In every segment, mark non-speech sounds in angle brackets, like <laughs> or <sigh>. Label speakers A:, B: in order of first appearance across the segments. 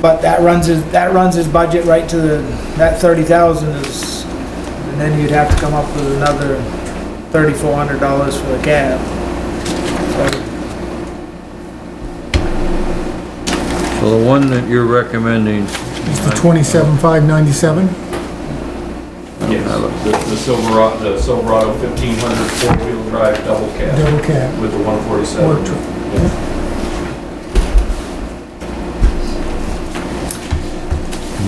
A: But that runs his, that runs his budget right to the, that thirty thousand is, and then you'd have to come up with another thirty-four hundred dollars for the cab. So,
B: So the one that you're recommending,
C: It's the twenty-seven, five ninety-seven?
D: Yes, Uh, the, the Silverado, the Silverado fifteen hundred four-wheel drive double cab
C: Double cab,
D: with the one
C: or
D: forty-seven.
C: tr-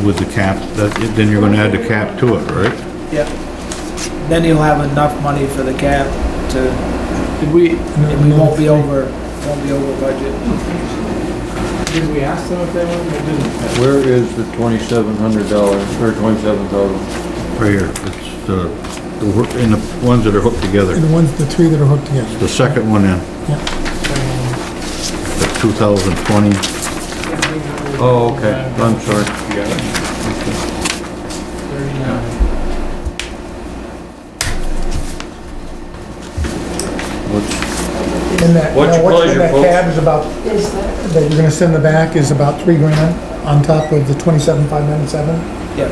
E: With the cap, that, then you're gonna add the cap to it, right?
A: yeah. Then he'll have enough money for the cab to,
F: Did we,
A: and we won't be over, won't be over budget.
F: did we ask them if they wanted, or didn't?
B: where is the twenty-seven hundred dollars, or twenty-seven thousand?
E: Right here, it's the, the, wor- in the ones that are hooked together,
C: the ones, the three that are hooked together.
E: the second one in, the two thousand twenty,
B: Oh, okay, I'm sorry.
D: You got it?
F: Thirty-nine.
B: What's-
C: And that,
D: What's
C: now
D: your
C: what's in
D: pleasure,
C: that
D: folks?
C: cab is about, that you're gonna send the back is about three grand on top of the twenty-seven, five ninety-seven,
A: Yeah,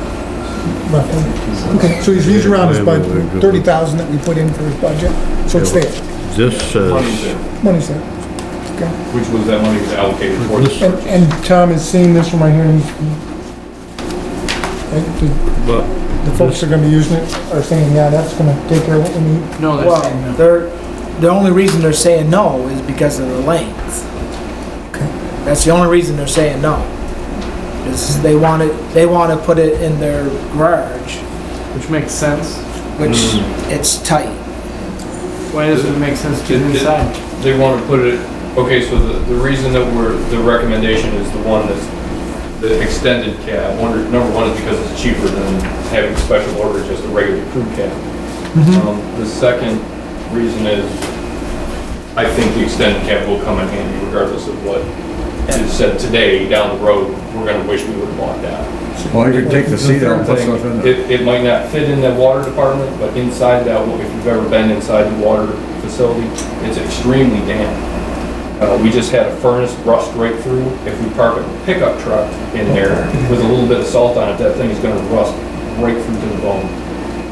C: roughly. Okay, so he's, he's around his budget, thirty thousand that we put in for his budget, so it's there,
E: this
D: Money's
E: says,
D: there,
C: money's there.
D: which was that money was allocated for this
C: And,
D: purchase.
C: and Tom has seen this one right here, and he- right, the-
E: but
C: the folks that are gonna be using it are saying, yeah, that's gonna take care of what we need.
F: No, that's saying
A: well,
F: no.
A: they're, the only reason they're saying no is because of the length.
C: Okay.
A: That's the only reason they're saying no. Is they want it, they want to put it in their garage,
F: Which makes sense.
A: which it's tight.
F: Why doesn't it make sense to do
D: Did- did-
F: inside?
D: They want to put it, okay, so the, the reason that we're, the recommendation is the one that's the extended cab. Wonder, number one is because it's cheaper than having special orders, just a regular crew cab. Um, The second reason is, I think the extended cab will come in handy regardless of what is said today, down the road, we're gonna wish we would've bought that.
G: Well, you can take the seat out and put stuff in there.
D: It, it might not fit in the water department, but inside that, if you've ever been inside the water facility, it's extremely damp. Uh, we just had a furnace rust right through. If we park a pickup truck in there with a little bit of salt on it, that thing is gonna rust right through to the bone.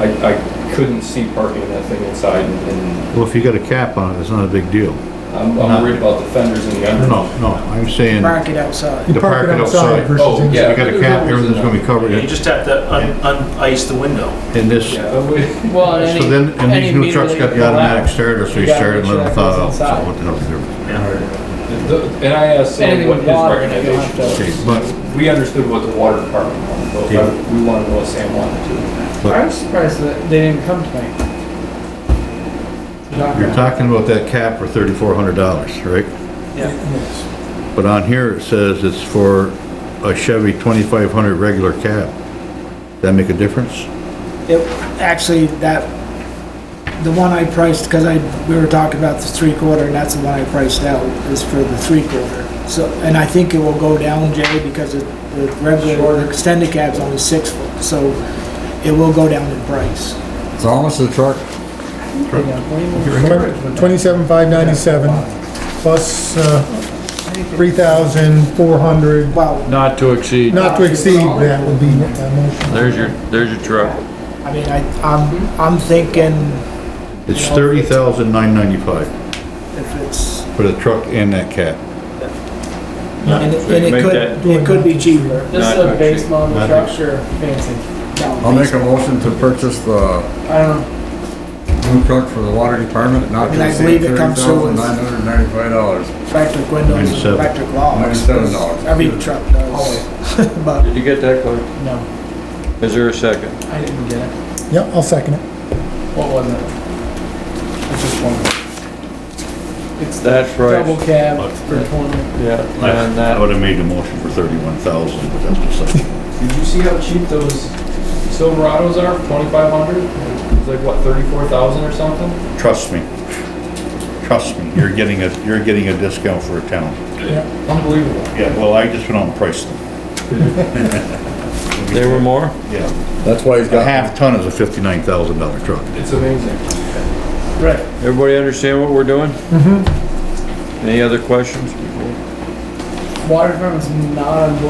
D: I, I couldn't see parking that thing inside and
E: well, if you got a cap on it, it's not a big deal.
D: I'm, I'm worried about the fenders and the under.
E: No, no, I'm saying,
A: Mark it outside.
C: You park it outside versus
D: Oh,
C: inside.
D: yeah.
E: you got a cap, everything's gonna be covered
H: You
E: in,
H: just have to un, un-ice the window.
E: in this,
D: Yeah, but we-
F: Well, and
E: so then, and these new trucks got the automatic starter, so you start it and let them thaw out, so what the hell's the difference?
D: the- and I asked Sam
F: Anything
D: what
F: with
D: his
F: water, you're gonna
D: recommendation
F: have to.
E: Okay, but,
D: We understood what the water department wanted, but
E: Yeah.
D: we wanted what Sam wanted to.
E: but
F: I'm surprised that they didn't come tonight.
E: You're talking about that cap for thirty-four hundred dollars, right?
A: Yeah.
E: But on here it says it's for a Chevy twenty-five hundred regular cab. That make a difference?
A: It, actually, that, the one I priced, because I, we were talking about the three quarter, and that's the one I priced out, is for the three quarter. So, and I think it will go down, Jay, because it- the regular, the extended cab's only six foot, so it will go down in price.
G: It's almost the truck.
C: Remember, twenty-seven, five ninety-seven, plus, uh, three thousand, four hundred,
A: Well,
B: Not to exceed,
C: not to exceed, that would be that motion.
B: there's your, there's your truck.
A: I mean, I, I'm, I'm thinking
E: It's thirty thousand nine ninety-five
A: if it's,
E: for the truck and that cab.
A: and it and it
D: Make
A: could,
D: that-
A: it could be cheaper.
F: Just
D: Not
F: a base
D: actually.
F: model
E: Not
F: truck, sure, fancy.
G: I'll make a motion to purchase the
F: I don't know.
G: new truck for the water department, not
A: And I
G: to exceed
A: believe it
G: thirty
A: comes through
G: thousand
A: with-
G: nine hundred ninety-five dollars.
A: Electric windows,
E: Ninety-seven.
A: electric locks.
G: Ninety-seven dollars. Oh,
A: Every truck does. <laughs> But
B: Did you get that, Clark?
F: No,
B: Is there a second?
F: I didn't get it.
C: Yep, I'll second it.
F: What was it? It's just one. It's the
B: That's right.
F: double cab for twenty.
B: Yeah, and uh,
E: I
B: that,
E: would have made the motion for thirty-one thousand, but that's just like,
D: Did you see how cheap those Silverados are, twenty-five hundred? It's like, what, thirty-four thousand or something?
E: trust me. Trust me, you're getting a, you're getting a discount for a town.
D: Unbelievable.
E: Yeah, well, I just went on price them.
B: they were more?
E: Yeah,
G: That's why he's
E: a
G: got.
E: half ton is a fifty-nine thousand dollar truck.
D: It's amazing.
F: Right.
B: Everybody understand what we're doing?
F: Mm-hmm.
B: Any other questions before?
F: Water department's not on board